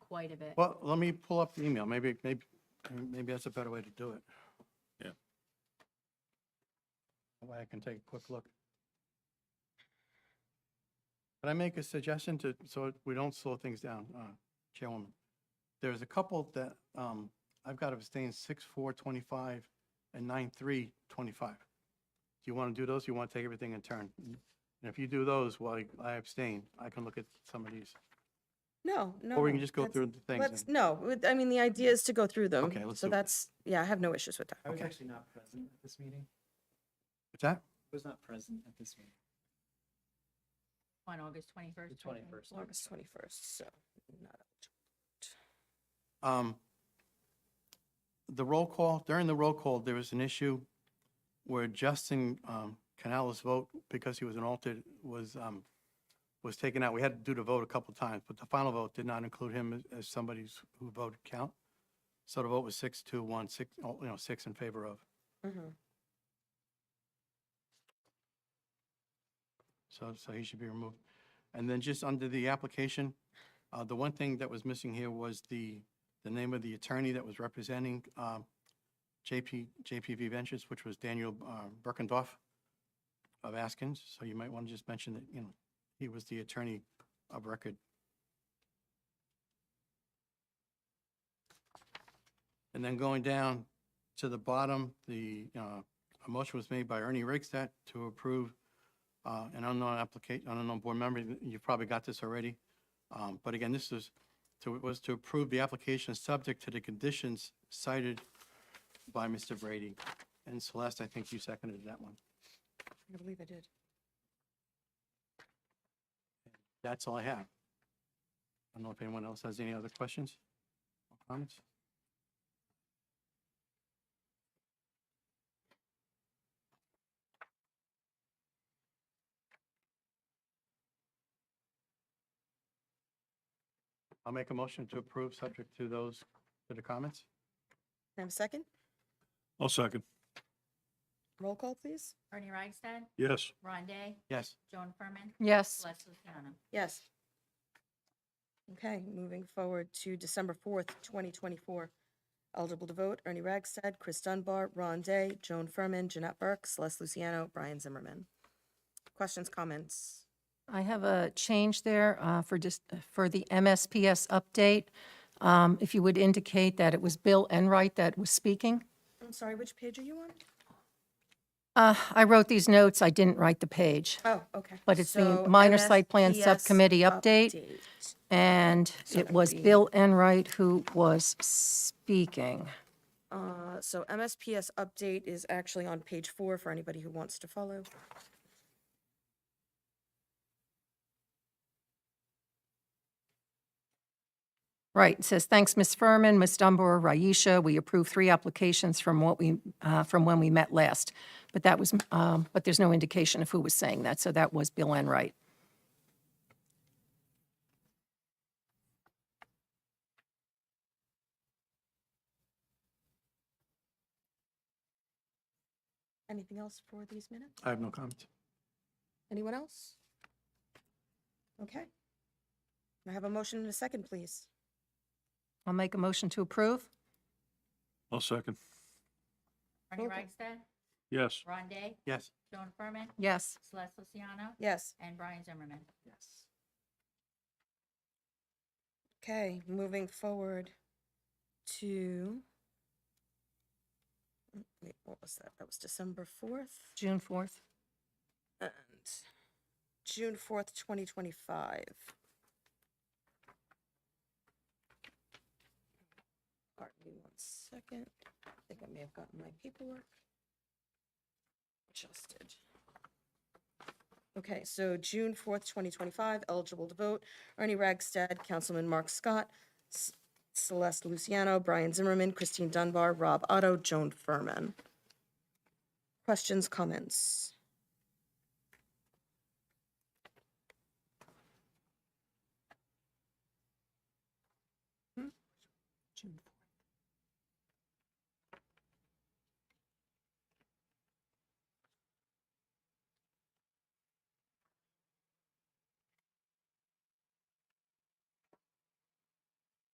quite a bit. Well, let me pull up the email. Maybe, maybe, maybe that's a better way to do it. Yeah. That way I can take a quick look. Can I make a suggestion to, so we don't slow things down, uh, Chairwoman? There's a couple that um, I've got abstained, six, four, 25, and nine, three, 25. Do you want to do those? You want to take everything in turn? And if you do those while I abstain, I can look at some of these. No, no. Or we can just go that's- through the things. Let's, and- no, it- I mean, the idea is to go through them. Okay, let's So do it. that's, yeah, I have no issues with I that. was actually not present at this meeting. What's that? I was not present at this meeting. On August 21st? The 21st. August 21st, so not, Um, The roll call, during the roll call, there was an issue where Justin um, Canales' vote, because he was an alternate, was, um, was taken out. We had to do the vote a couple times, but the final vote did not include him as- as somebody who's- who voted count. So the vote was six, two, one, six, oh, you know, six in favor of. Mhm. So, so he should be removed. And then just under the application, uh, the one thing that was missing here was the, the name of the attorney that was representing, um, JP, JPV Ventures, which was Daniel, uh, Berkendorf of Askins. So you might want to just mention that, you know, he was the attorney of record. And then going down to the bottom, the, uh, a motion was made by Ernie Rigstat to approve uh, an unknown application, unknown board member, you've probably got this already. Um, But again, this is, to was to approve the application subject to the conditions cited by Mr. Brady. And Celeste, I think you seconded that one. I believe I did. That's all I have. I don't know if anyone else has any other questions or comments? I'll make a motion to approve, subject to those, to the comments. Can I have a second? I'll second. Roll call, please? Ernie Reichstad, Yes. Ron Day, Yes, Joan Furman, Yes, Celeste Luciano. Yes. Okay, moving forward to December 4th, 2024. Eligible to vote, Ernie Ragsted, Chris Dunbar, Ron Day, Joan Furman, Jeanette Burke, Celeste Luciano, Brian Zimmerman. Questions, comments? I have a change there uh, for just, for the MSPS update. Um, If you would indicate that it was Bill Enright that was speaking. I'm sorry, which page are you on? Uh, I wrote these notes, I didn't write the page. Oh, okay. But it's the So minor site plan MSPS subcommittee update. update. And So it that was would be- Bill Enright who was speaking. Uh, So MSPS update is actually on page four for anybody who wants to follow. Right, it says, "Thanks, Ms. Furman, Ms. Dunbar, Raisha. We approved three applications from what we, uh, from when we met last." But that was, um, but there's no indication of who was saying that, so that was Bill Enright. Anything else for these minutes? I have no comments. Anyone else? Okay. Can I have a motion and a second, please. I'll make a motion to approve. I'll second. Ernie Okay. Reichstad, Yes. Ron Day, Yes, Joan Furman, Yes. Celeste Luciano, Yes. and Brian Zimmerman. Yes. Okay, moving forward to. Mm, Wait, what was that? That was December fourth June 4th. and June fourth, twenty twenty-five. All right, give me one second. I think I may have gotten my paperwork adjusted. Okay, so June fourth, twenty twenty-five, eligible to vote, Ernie Ragsted, Councilman Mark Scott, S- Celeste Luciano, Brian Zimmerman, Christine Dunbar, Rob Otto, Joan Furman. Questions, comments? June